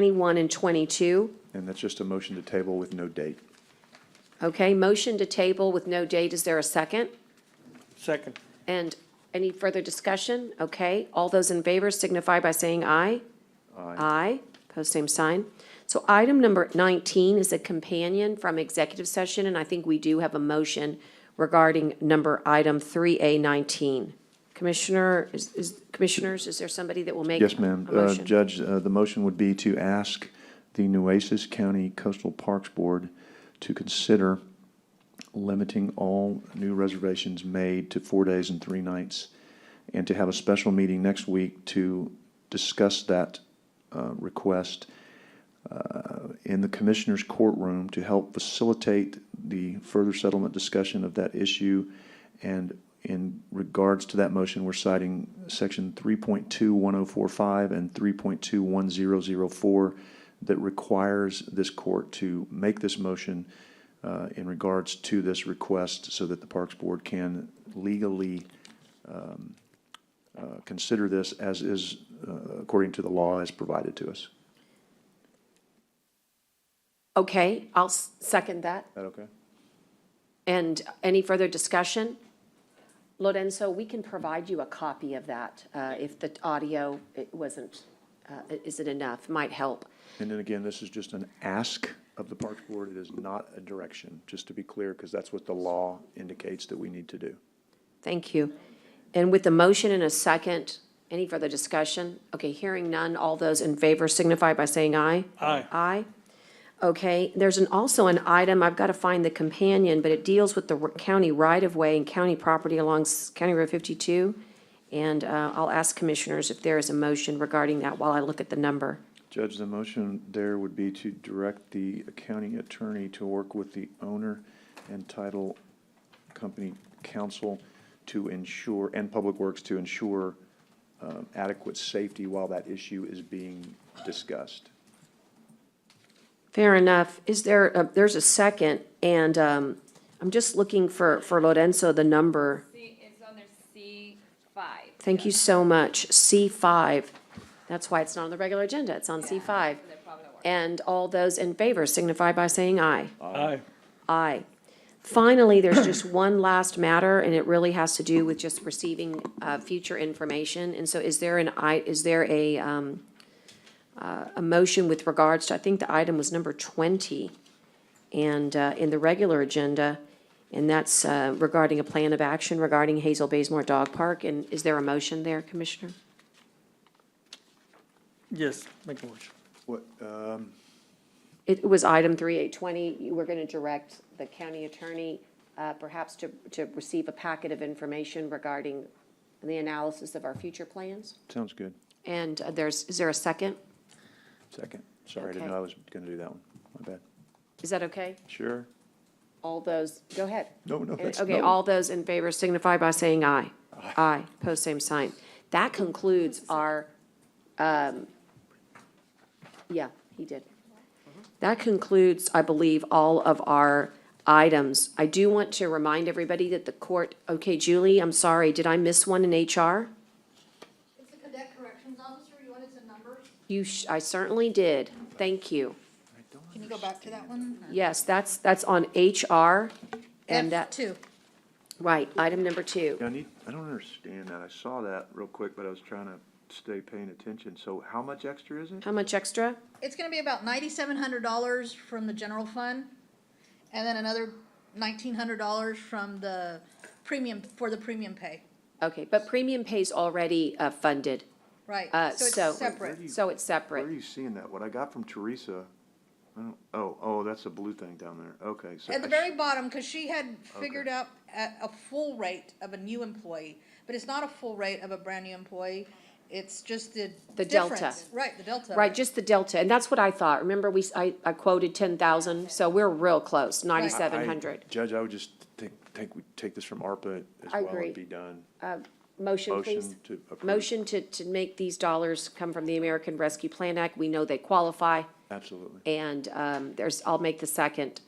21 and 22. And that's just a motion to table with no date. Okay, motion to table with no date, is there a second? Second. And any further discussion? Okay, all those in favor signify by saying aye. Aye, pose same sign. So item number 19 is a companion from executive session, and I think we do have a motion regarding number item 3A19. Commissioner, is, is- commissioners, is there somebody that will make? Yes, ma'am. a Uh, motion? Judge, uh, the motion would be to ask the Nueces County Coastal Parks Board to consider limiting all new reservations made to four days and three nights, and to have a special meeting next week to discuss that uh, request uh, in the Commissioner's courtroom to help facilitate the further settlement discussion of that issue. And in regards to that motion, we're citing Section 3.21045 and 3.21004 that requires this court to make this motion uh, in regards to this request so that the Parks Board can legally um, uh, consider this as is, uh, according to the law, as provided to us. Is Okay, I'll s- second that. that okay? And any further discussion? Lorenzo, we can provide you a copy of that uh, if the audio it wasn't, uh, isn't enough, might help. And then again, this is just an ask of the Parks Board. It is not a direction, just to be clear, because that's what the law indicates that we need to do. Thank you. And with the motion and a second, any further discussion? Okay, hearing none, all those in favor signify by saying aye. Aye. Aye. Okay, there's an, also an item, I've got to find the companion, but it deals with the county right-of-way and county property along S- County Road 52. And uh, I'll ask commissioners if there is a motion regarding that while I look at the number. Judge, the motion there would be to direct the county attorney to work with the owner and title company counsel to ensure, and Public Works to ensure um, adequate safety while that issue is being discussed. Fair enough. Is there, a- there's a second, and um, I'm just looking for, for Lorenzo, the number. C, it's on their C five. Thank you so much. C5. That's why it's not on the regular agenda. It's on C5. They're probably not working. And all those in favor signify by saying aye. Aye. Aye. Finally, there's just one last matter, and it really has to do with just receiving uh, future information. And so is there an, i- is there a, um, uh, a motion with regards to, I think the item was number 20, and uh, in the regular agenda, and that's uh, regarding a plan of action regarding Hazel Baysmore Dog Park. And is there a motion there, Commissioner? Yes, make a motion. What, um, It was item 3820. You were going to direct the county attorney uh, perhaps to, to receive a packet of information regarding the analysis of our future plans. sounds good. And uh, there's, is there a second? Second. Sorry, I didn't Okay. know I was going to do that one. My bad. Is that okay? Sure. All those, go ahead. No, no, And- that's, Okay, no. all those in favor signify by saying aye. Aye, pose same sign. That concludes our, um, yeah, he did. That concludes, I believe, all of our items. I do want to remind everybody that the court, okay, Julie, I'm sorry, did I miss one in HR? It's the cadet corrections officer, you wanted some numbers? You, sh- I certainly did. Thank you. Can you go back to that one? Yes, that's, that's on HR and F that, two. right, item number two. I need, I don't understand that. I saw that real quick, but I was trying to stay paying attention. So how much extra is it? How much extra? It's gonna be about ninety-seven hundred dollars from the general fund, and then another nineteen hundred dollars from the premium, for the premium pay, Okay, but premium pay's already uh, funded, right? Uh, so- it's separate. so it's Where are separate. you seeing that? What I got from Teresa, I don't, oh, oh, that's a blue thing down there. Okay, so. At the I sh- very bottom, cause she had figured out a, a full rate of a new employee, but it's not a full rate of a brand-new employee, it's just the The delta. difference. Right, the delta. Right, just the delta, and that's what I thought. Remember, we, s- I I quoted 10,000, so we're real close, I- 9,700. Judge, I would just think, think we take this from ARPA as I well agree. and be done. Motion, please. Motion to approve. Motion to, to make these dollars come from the American Rescue Plan Act. We know they qualify, Absolutely. and um, there's, I'll make the second.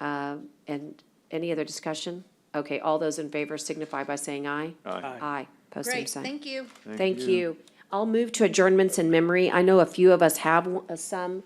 Uh, And any other discussion? Okay, all those in favor signify by saying aye. Aye. Aye, post same Great, sign. thank you. Thank you. I'll move to adjournments in memory. I know a few of us have w- uh, some.